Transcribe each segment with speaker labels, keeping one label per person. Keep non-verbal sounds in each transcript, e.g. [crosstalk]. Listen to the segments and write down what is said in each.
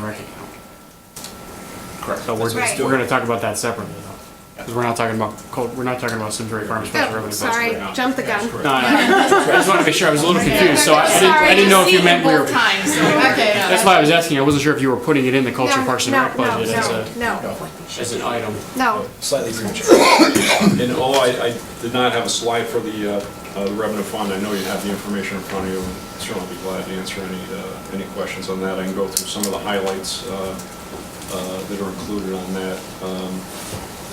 Speaker 1: rec account.
Speaker 2: Correct.
Speaker 1: So we're,
Speaker 2: That's what it's
Speaker 3: Right.
Speaker 1: we're
Speaker 2: doing.
Speaker 1: gonna talk about that separately though. Because we're not talking about, code- we're not talking about Simsbury Farms Special
Speaker 4: Oh,
Speaker 1: Revenue Bonds
Speaker 4: sorry,
Speaker 1: right now.
Speaker 4: jumped the gun.
Speaker 1: No, I I just wanted to make sure, I was a
Speaker 4: [laughs]
Speaker 1: little confused, so I I didn't, I didn't know if you meant we were.
Speaker 3: Okay, no,
Speaker 1: That's why I was asking, I wasn't sure if you were putting it in the culture
Speaker 4: No,
Speaker 1: parks and
Speaker 4: no,
Speaker 1: rec budget
Speaker 4: no,
Speaker 1: as
Speaker 4: no,
Speaker 1: a,
Speaker 4: No,
Speaker 1: as an item.
Speaker 4: no.
Speaker 2: Slightly premature.
Speaker 5: And although I, I did not have a slide for the, uh, uh, the revenue fund, I know you have the information in front of you, and certainly be glad to answer any, uh, any questions on that. I can go through some of the highlights, uh, uh, that are included on that. Um,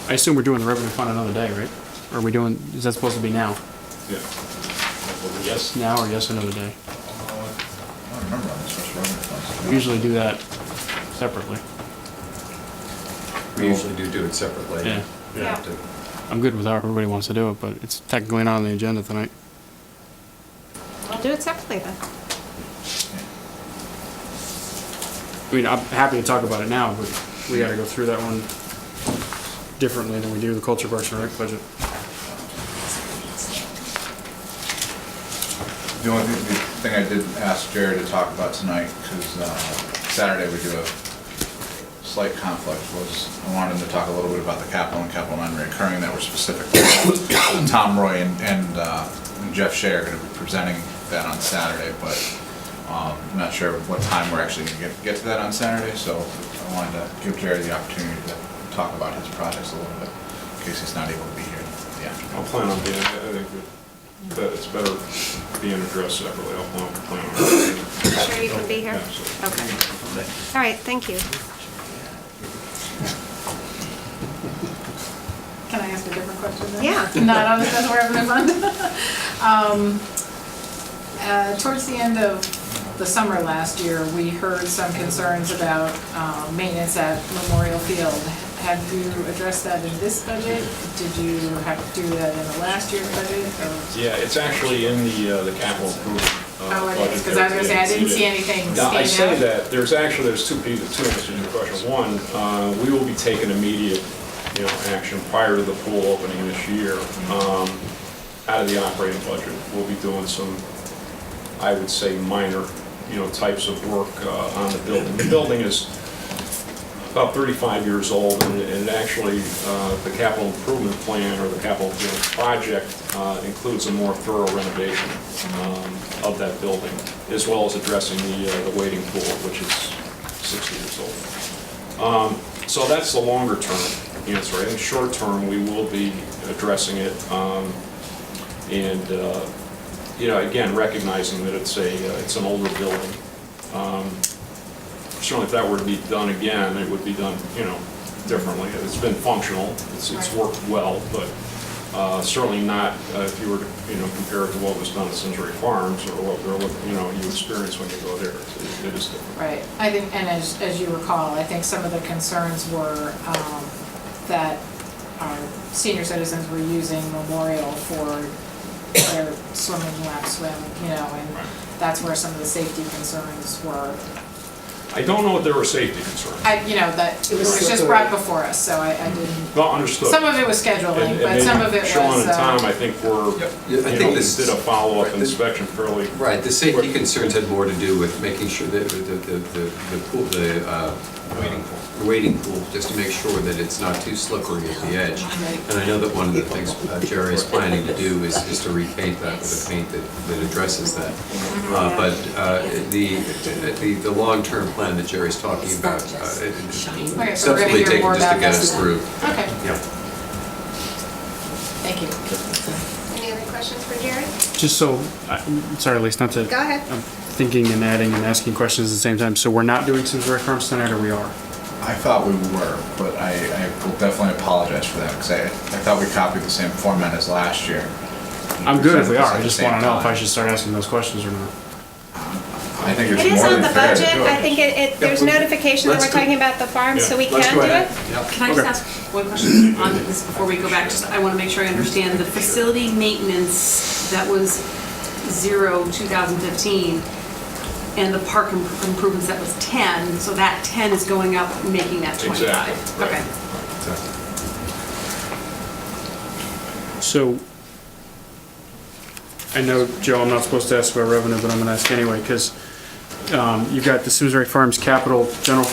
Speaker 1: I assume we're doing the revenue fund another day, right? Or are we doing, is that supposed to be now?
Speaker 5: yeah. Yes?
Speaker 1: Now or yes, another day?
Speaker 2: Uh, I don't remember on this special revenue
Speaker 1: We
Speaker 2: funds.
Speaker 1: usually do that separately.
Speaker 6: We usually do do it separately.
Speaker 1: Yeah.
Speaker 6: You have
Speaker 4: Yeah.
Speaker 6: to-
Speaker 1: I'm good with how everybody wants to do it, but it's technically not on the agenda tonight.
Speaker 4: I'll do it separately then.
Speaker 1: I mean, I'm happy to talk about it now, but we gotta go through that one differently than we do the culture parks and rec budget.
Speaker 2: The only thing, the thing I did ask Jerry to talk about tonight, because Saturday we do a slight conflict, was I wanted him to talk a little bit about the capital and capital non-recurring that were specific. Tom Roy and- and uh, and Jeff Shea are going to be presenting that on Saturday, but um, I'm not sure what time we're actually going to get to that on Saturday, so I wanted to give Jerry the opportunity to talk about his projects a little bit, in case he's not able to be here in the afternoon.
Speaker 5: I'll plan on being, I I think that- that it's better being addressed separately. I'll plan- plan on.
Speaker 4: Sure you can be here? Okay. All right, thank you.
Speaker 3: Can I ask a different question then? [laughs]
Speaker 4: Yeah.
Speaker 3: Not on the special revenue fund. [laughs] Um, uh, Towards the end of the summer last year, we heard some concerns about uh, maintenance at Memorial Field. Have you addressed that in this budget? Did you have to do that in the last year's budget? or-
Speaker 5: Yeah, it's actually in the, uh, the capital improvement. uh,
Speaker 3: Oh, it
Speaker 5: budget
Speaker 3: is, because I was gonna say, I
Speaker 5: there.
Speaker 3: didn't see anything
Speaker 5: Now, I
Speaker 3: stand
Speaker 5: say
Speaker 3: out.
Speaker 5: that, there's actually, there's two pieces, two answers to your question. One, uh, we will be taking immediate, you know, action prior to the pool opening this year, um, out of the operating budget. We'll be doing some, I would say, minor, you know, types of work uh, on the building. The building is about 35 years old, and- and actually, uh, the capital improvement plan or the capital improvement project uh, includes a more thorough renovation um, of that building, as well as addressing the uh, the waiting pool, which is 60 years old. Um, So that's the longer-term answer. I think short-term, we will be addressing it, um, and, uh, you know, again, recognizing that it's a, uh, it's an older building. Um, certainly if that were to be done again, it would be done, you know, differently. It's been functional, it's, it's worked well, but uh, certainly not uh, if you were, to you know, compare it to what was done at Century Farms or what, they're look- you know, you experience when you go there. It's- It is different.
Speaker 3: Right, I think, and as, as you recall, I think some of the concerns were um, that our senior citizens were using Memorial for their swimming, lap swim, you know, and
Speaker 5: Right.
Speaker 3: that's where some of the safety concerns were.
Speaker 5: I don't know if there were safety concerns.
Speaker 3: I, you know, that, it was just brought before us, so I, I didn't,
Speaker 5: Not understood.
Speaker 3: some of it
Speaker 5: And-
Speaker 3: was scheduling,
Speaker 5: and
Speaker 3: but
Speaker 5: maybe
Speaker 3: some of it was.
Speaker 5: Sean and
Speaker 3: uh,
Speaker 5: Tom, I think, were,
Speaker 6: Yep. Yeah, I
Speaker 5: you
Speaker 6: think
Speaker 5: know,
Speaker 6: this-
Speaker 5: did a follow-up
Speaker 6: Right, this-
Speaker 5: inspection fairly.
Speaker 6: Right, the safety concerns had more to do with making sure that the, the, the the pool, the, uh.
Speaker 5: Waiting pool.
Speaker 6: the Waiting pool, just to make sure that it's not too slippery at the edge. And I know that one of the things uh, Jerry is planning to do is, is to repaint that with a paint that, that addresses that. Uh, but, uh, the, the, the long-term plan that Jerry's talking about, uh, it-
Speaker 3: Okay, so we're
Speaker 6: it's
Speaker 3: gonna
Speaker 6: substantially
Speaker 3: hear
Speaker 6: taken
Speaker 3: more
Speaker 6: just to
Speaker 3: about
Speaker 6: get us
Speaker 3: this then.
Speaker 6: through.
Speaker 3: Okay,
Speaker 6: Yeah.
Speaker 3: thank you.
Speaker 4: Any other questions for Jared?
Speaker 1: Just so, I- sorry, Elise, not to.
Speaker 4: Go ahead.
Speaker 1: I'm thinking and adding and asking questions at the same time, so we're not doing Simsbury Farms tonight, or we are?
Speaker 2: I thought we were, but I, I will definitely apologize for that, because I, I thought we copied the same format as last year.
Speaker 1: I'm good if we are, I just
Speaker 2: Presented
Speaker 1: wanna
Speaker 2: at the same
Speaker 1: know if I
Speaker 2: time.
Speaker 1: should start asking those questions or not.
Speaker 2: I think
Speaker 4: It
Speaker 2: it's
Speaker 4: is
Speaker 2: more
Speaker 4: on
Speaker 2: than
Speaker 4: the
Speaker 2: fair to
Speaker 4: budget,
Speaker 2: do it.
Speaker 4: I think it, it, there's notification that
Speaker 6: Let's
Speaker 4: we're
Speaker 6: do-
Speaker 4: talking about the farm, so we
Speaker 6: Let's
Speaker 4: can
Speaker 6: go
Speaker 4: do
Speaker 6: ahead.
Speaker 4: it.
Speaker 6: Yep.
Speaker 7: Can I just
Speaker 1: Okay.
Speaker 7: ask one question on this before we go back? Just, I want to make sure I understand. The facility maintenance that was zero 2015 and the park im- improvements that was 10, so that 10 is going up, making that 25?
Speaker 5: Exactly, right.
Speaker 7: Okay.
Speaker 6: Exactly.
Speaker 1: So, I know, Joe, I'm not supposed to ask about revenue, but I'm gonna ask anyway, because, um, you've got the Simsbury Farms Capital General